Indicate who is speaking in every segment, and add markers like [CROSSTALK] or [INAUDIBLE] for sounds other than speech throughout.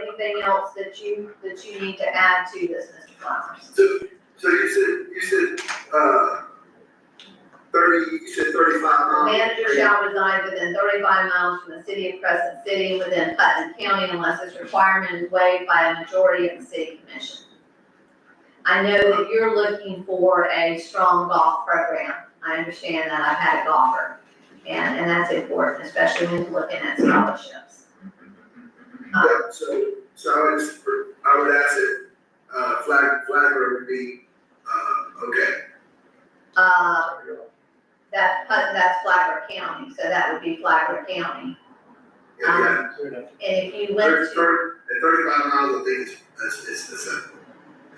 Speaker 1: anything else that you, that you need to add to this, Mr. Flowers?
Speaker 2: So, so you said, you said, uh, thirty, you said thirty-five
Speaker 1: The
Speaker 2: miles?
Speaker 1: manager shall reside within thirty-five miles from the city of Crescent City within Putnam County unless its requirement is waived by a majority of the city commission. I know that you're looking for a strong golf program. I understand that. I've had a golfer. And, and that's important, especially when you're looking at scholarships. Um,
Speaker 2: Yeah, so, so I would, just- I would ask it, uh, flag, flagger would be, uh, okay.
Speaker 1: Uh, that, that's Flagler County, so that would be Flagler County.
Speaker 2: Yeah, yeah,
Speaker 3: Um,
Speaker 1: And if you
Speaker 2: thirty,
Speaker 1: went to,
Speaker 2: thirty, at thirty-five miles, I think it's, it's, it's the same.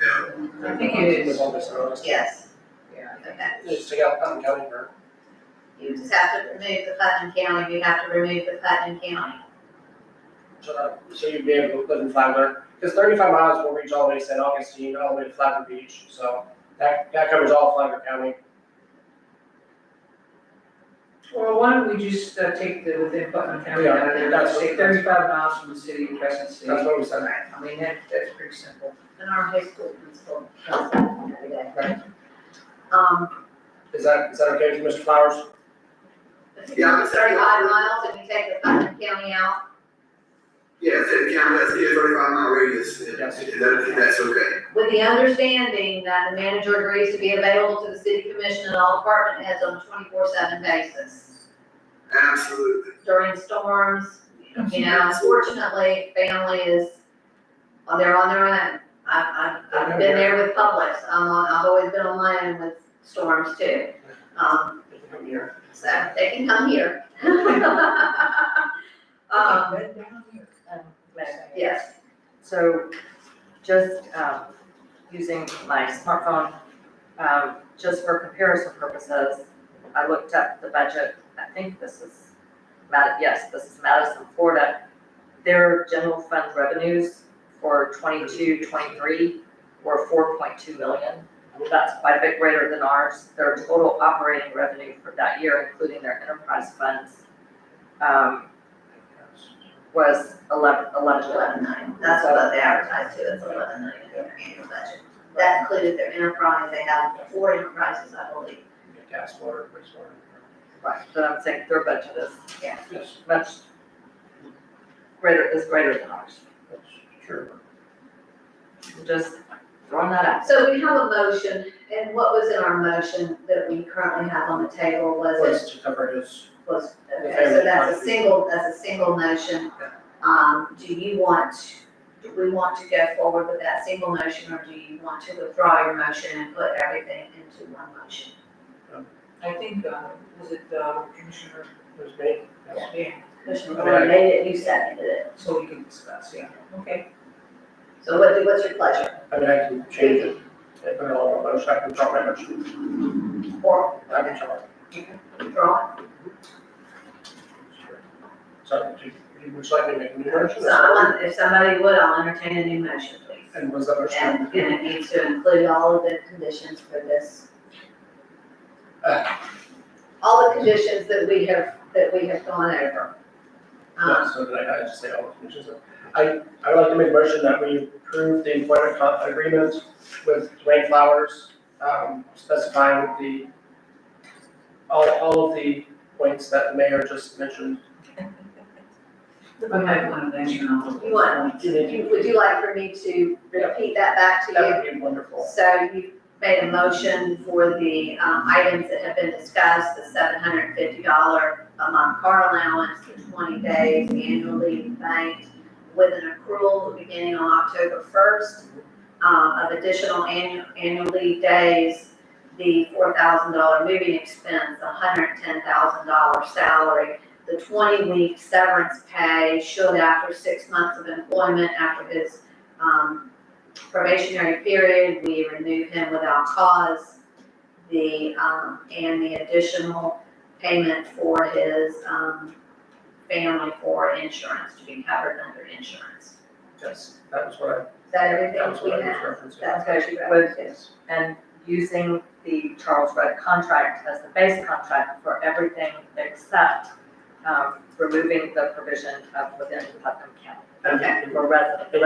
Speaker 2: Yeah,
Speaker 3: I think it is.
Speaker 1: yes,
Speaker 3: Yeah.
Speaker 1: okay.
Speaker 3: Just take out Putnam County Burke.
Speaker 1: You just have to remove the Putnam County, you have to remove the Putnam County.
Speaker 3: So that, so you'd be able to put in Flagler, because thirty-five miles will reach all the way to St. Augustine, all the way to Flagler Beach, so that, that covers all Flagler County.
Speaker 4: Well, why don't we just uh, take the within Putnam County,
Speaker 3: Yeah,
Speaker 4: out of there,
Speaker 3: that's-
Speaker 4: say thirty-five miles from the city of Crescent City.
Speaker 3: That's what we said.
Speaker 4: I mean, that, that's pretty simple.
Speaker 1: And our high school principal tells us every day. Um,
Speaker 3: Is that, is that okay with Mr. Flowers?
Speaker 1: if you go thirty-five miles and you take the Putnam County out,
Speaker 2: yeah, so the county, that's, yeah, thirty-five mile radius, and,
Speaker 3: Yes.
Speaker 2: and that, and that's okay.
Speaker 1: with the understanding that the manager agrees to be available to the city commission and all department heads on a twenty-four seven basis.
Speaker 2: Absolutely,
Speaker 1: during storms, you know, unfortunately, family is, well, they're on their own. I've, I've, I've been there with Publix, I'm on, I've always been on my own with storms too. Um,
Speaker 3: Come here.
Speaker 1: so they can come here. [LAUGHS] Um,
Speaker 5: Um, Madam-
Speaker 1: yes,
Speaker 5: So just um, using my smartphone, um, just for comparison purposes, I looked up the budget. I think this is, Mad- yes, this is Madison, Florida. Their general fund revenues for 22, 23 were 4.2 million. That's quite a bit greater than ours. Their total operating revenue for that year, including their enterprise funds, um, was 11, 11 million.
Speaker 1: eleven nine, that's what they advertise to, it's eleven nine in their annual budget. That included their enterprise, they have four enterprises, I believe.
Speaker 3: Gas, water, wastewater.
Speaker 5: Right, but I'm saying their budget is
Speaker 3: Yes,
Speaker 5: much greater, is greater than ours.
Speaker 3: that's true.
Speaker 5: I'm Just throwing that out.
Speaker 1: So we have a motion, and what was in our motion that we currently have on the table was it
Speaker 3: Was to cover his,
Speaker 1: was, okay,
Speaker 3: Okay,
Speaker 1: so that's a
Speaker 3: fine.
Speaker 1: single, that's a single motion. Um, do you want, do we want to go forward with that single motion, or do you want to withdraw your motion and put everything into one motion?
Speaker 4: I think, uh, was it, uh, Commissioner,
Speaker 3: his me.
Speaker 4: yeah,
Speaker 1: Commissioner Thornton made it, you seconded it,
Speaker 4: so we can discuss, yeah. Okay.
Speaker 1: so what, do- what's your pleasure?
Speaker 3: I mean, I can change it, I put it all on my motion, I can drop my motion,
Speaker 1: Or
Speaker 3: I can drop.
Speaker 1: withdraw?
Speaker 3: So, do you, would you like me to make a new motion?
Speaker 1: So I want, if somebody would, I'll entertain a new motion, please.
Speaker 3: And was that motion?
Speaker 1: And, and it needs to include all of the conditions for this. All the conditions that we have, that we have gone over.
Speaker 3: Yeah,
Speaker 1: Um,
Speaker 3: so did I, I just say all the conditions. I, I would like to make a motion that we approve the employment con- agreement with Dwayne Flowers, um, specifying the, all, all of the points that the mayor just mentioned.
Speaker 4: I might want to mention all of those.
Speaker 1: You want- would you, would you like for me to repeat that back to you?
Speaker 3: That would be wonderful.
Speaker 1: So you made a motion for the, um, items that have been discussed, the seven hundred and fifty dollar a month car allowance, the twenty days annual leave bank with an accrual beginning on October first, um, of additional annual, annual leave days, the four thousand dollar moving expense, the hundred and ten thousand dollar salary, the twenty week severance pay should after six months of employment, after his, um, probationary period, we remove him without cause. The, um, and the additional payment for his, um, family for insurance to be covered under insurance.
Speaker 3: Yes, that was what
Speaker 1: Is that
Speaker 3: I, that was
Speaker 1: everything we
Speaker 3: what I
Speaker 1: have?
Speaker 3: was referencing.
Speaker 1: That's what you
Speaker 5: With-
Speaker 1: wrote.
Speaker 5: And using the Charles Rudd contract as the base contract for everything except um, removing the provision of within Putnam County
Speaker 3: And-
Speaker 1: Okay.
Speaker 5: for residents.